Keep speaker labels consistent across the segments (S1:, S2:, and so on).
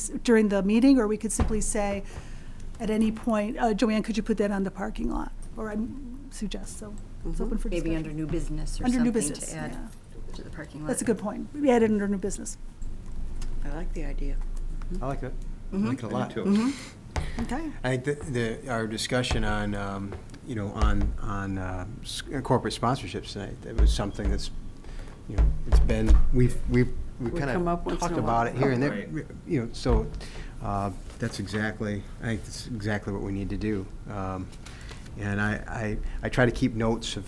S1: s- during the meeting, or we could simply say at any point, uh, Joanne, could you put that on the parking lot? Or I suggest, so it's open for
S2: Mm-hmm. Maybe under
S1: discussion.
S2: new business or
S1: Under new
S2: something
S1: business,
S2: to add
S1: yeah.
S2: to the parking lot.
S1: That's a good point. We add it under new business.
S3: I like the idea.
S4: I like that.
S5: I like it a lot.
S1: Okay.
S5: I think that the, our discussion on, um, you know, on, on uh, s- corporate sponsorships tonight, that was something that's, you know, it's been, we've, we've, we
S3: We
S5: kind
S3: come up
S5: of
S3: once in
S5: talked
S3: a while.
S5: about it here and there,
S4: Right.
S5: you know, so, uh, that's exactly, I think that's exactly what we need to do. Um, And I, I, I try to keep notes of,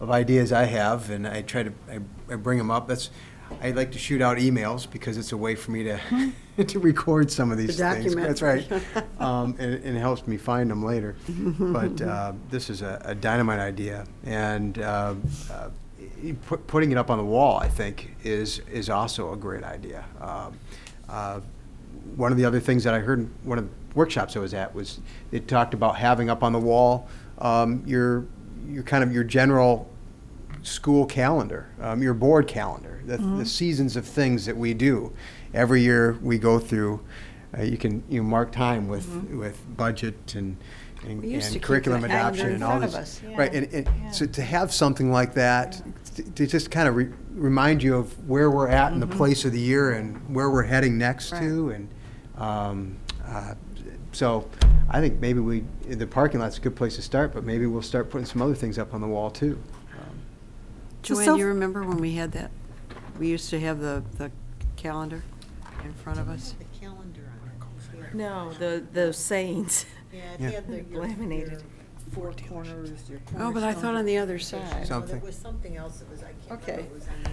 S5: of ideas I have, and I try to, I, I bring them up, that's, I like to shoot out emails, because it's a way for me to, to record some of these things.
S3: Hmm. document.
S5: That's right um, and, and it helps me find them later. but uh, this is a, a dynamite idea, and uh, uh, y- pu- putting it up on the wall, I think, is is also a great idea. Um, uh, one of the other things that I heard in one of the workshops I was at was it talked about having up on the wall um, your your kind of your general school calendar, um, your board calendar, the,
S3: Mm-hmm.
S5: the seasons of things that we do. Every year we go through. Uh, you can you mark time with with budget and and,
S3: Mm-hmm. We used to
S5: and
S3: keep the
S5: curriculum
S3: calendar
S5: adoption
S3: in
S5: and all
S3: front of
S5: this,
S3: us, yeah.
S5: right? And, and so to have something like that to, to just kind of re- remind you of where we're at in the
S3: Mm-hmm.
S5: place of the year and where we're heading next to, and um, uh, so I think maybe we the parking lot's a good place to start, but maybe we'll start putting some other things up on the wall too. Um,
S1: So
S3: Joanne,
S1: self-
S3: you remember when we had that? We used to have the, the calendar in front of us.
S6: The calendar on it.
S7: No, the, the sayings.
S6: Yeah,
S5: Yeah.
S6: it had the, your, your
S7: Laminated.
S6: four corners, your
S3: Oh, but I thought on the other side.
S6: No,
S5: Something.
S6: there was something else that was, I can't
S3: Okay.
S6: remember, it was on the,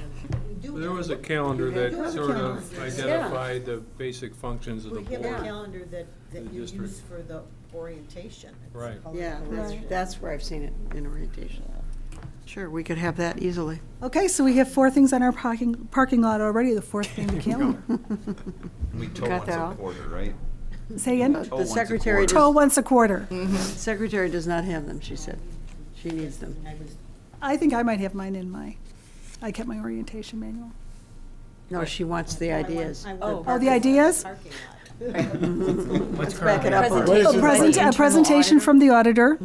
S6: we do.
S8: There
S6: have-
S8: was a calendar
S6: You have
S8: that
S6: a
S8: sort of
S6: calendar.
S8: identified the basic functions of the
S6: We have a
S8: board.
S6: calendar that,
S8: The
S6: that you
S8: district.
S6: use for the orientation. It's
S8: Right.
S6: colored
S3: Yeah, that's,
S6: correction.
S3: that's where I've seen it in orientation. Sure, we could have that easily.
S1: Okay, so we have four things on our parking, parking lot already, the fourth being the calendar.
S4: We tow
S3: Got
S4: once
S3: that
S4: a
S3: out?
S4: quarter, right?
S1: Say
S3: Uh,
S1: again,
S4: once
S3: The
S4: a
S3: secretary,
S4: quarter.
S1: tow
S3: does-
S1: once a quarter.
S3: secretary does not have them, she said. She needs them.
S6: And I was,
S1: I think I might have mine in my, I kept my orientation manual.
S3: No, she wants the
S6: I want-
S3: ideas.
S6: I want
S7: Oh.
S1: Oh,
S6: parking
S1: the
S6: lot,
S1: ideas?
S6: Parking
S3: Let's back it up.
S7: Presentation.
S3: a little.
S1: A
S7: Presentation.
S1: present, a
S7: Internal
S1: presentation
S7: auditor?
S1: from the auditor.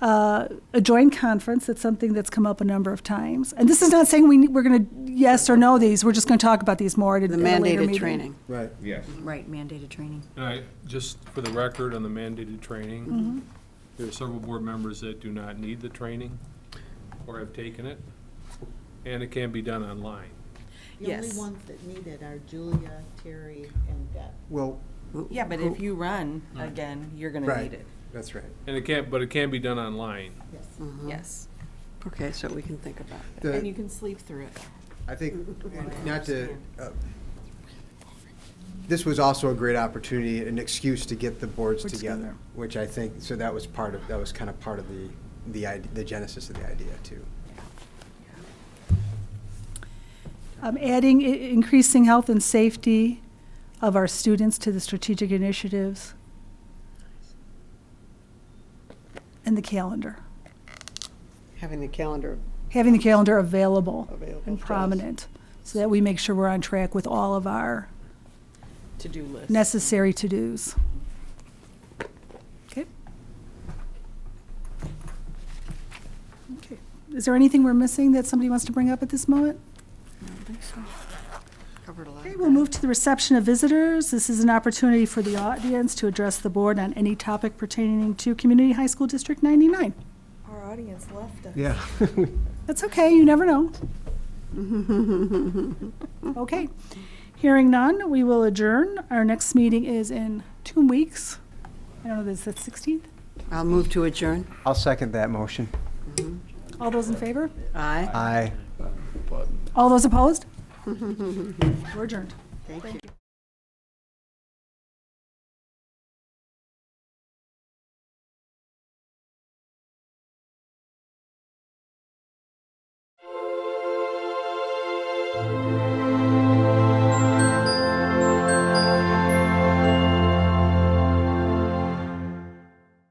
S1: Uh, A joint conference, that's something that's come up a number of times. And this is not saying we, ne- we're going to yes or no these, we're just going to talk about these more at a
S3: The
S1: at a later meeting.
S3: mandated training.
S5: Right.
S4: Yes.
S2: Right, mandated training.
S8: And I, just for the record, on the mandated
S1: Mm-hmm.
S8: training, there are several board members that do not need the training or have taken it, and it can be done online.
S6: lot. The only
S7: Yes.
S6: ones that need it are Julia, Terry, and Deb.
S5: Well,
S7: Yeah, but if you run again, you're gonna
S5: Right.
S7: need it.
S5: that's right.
S8: And it can't, but it can be done online.
S6: Yes.
S3: Uh-huh.
S7: Yes.
S3: Mm-hmm. Okay, so we can think about that.
S5: The-
S7: And you can sleep through it.
S5: I think, not to, uh, this was also a great opportunity, an excuse to get the boards
S1: Boards
S5: together,
S1: together.
S5: which I think, so that was part of, that was kind of part of the, the ide- the genesis of the idea, too.
S1: Um, Adding, i- increasing health and safety of our students to the strategic initiatives. And the calendar,
S3: Having the calendar
S1: having the calendar available
S3: available.
S1: and
S3: to us.
S1: prominent, so that we make sure we're on track with all of our
S7: To-do list.
S1: necessary to-dos. Okay. Okay. Is there anything we're missing that somebody wants to bring up at this moment?
S3: Covered a lot.
S1: Okay,
S3: of
S1: we'll
S3: ground.
S1: move to the reception of visitors. This is an opportunity for the audience to address the board on any topic pertaining to Community High School District 99.
S7: Our audience left us.
S5: Yeah.
S1: That's okay, you never know. Okay. Hearing none, we will adjourn. Our next meeting is in two weeks. I don't know, is that 16th?
S3: I'll move to adjourn.
S5: I'll second that motion.
S1: All those in favor?
S3: Aye.
S5: Aye.
S1: All those opposed? We're adjourned.
S3: Thank you.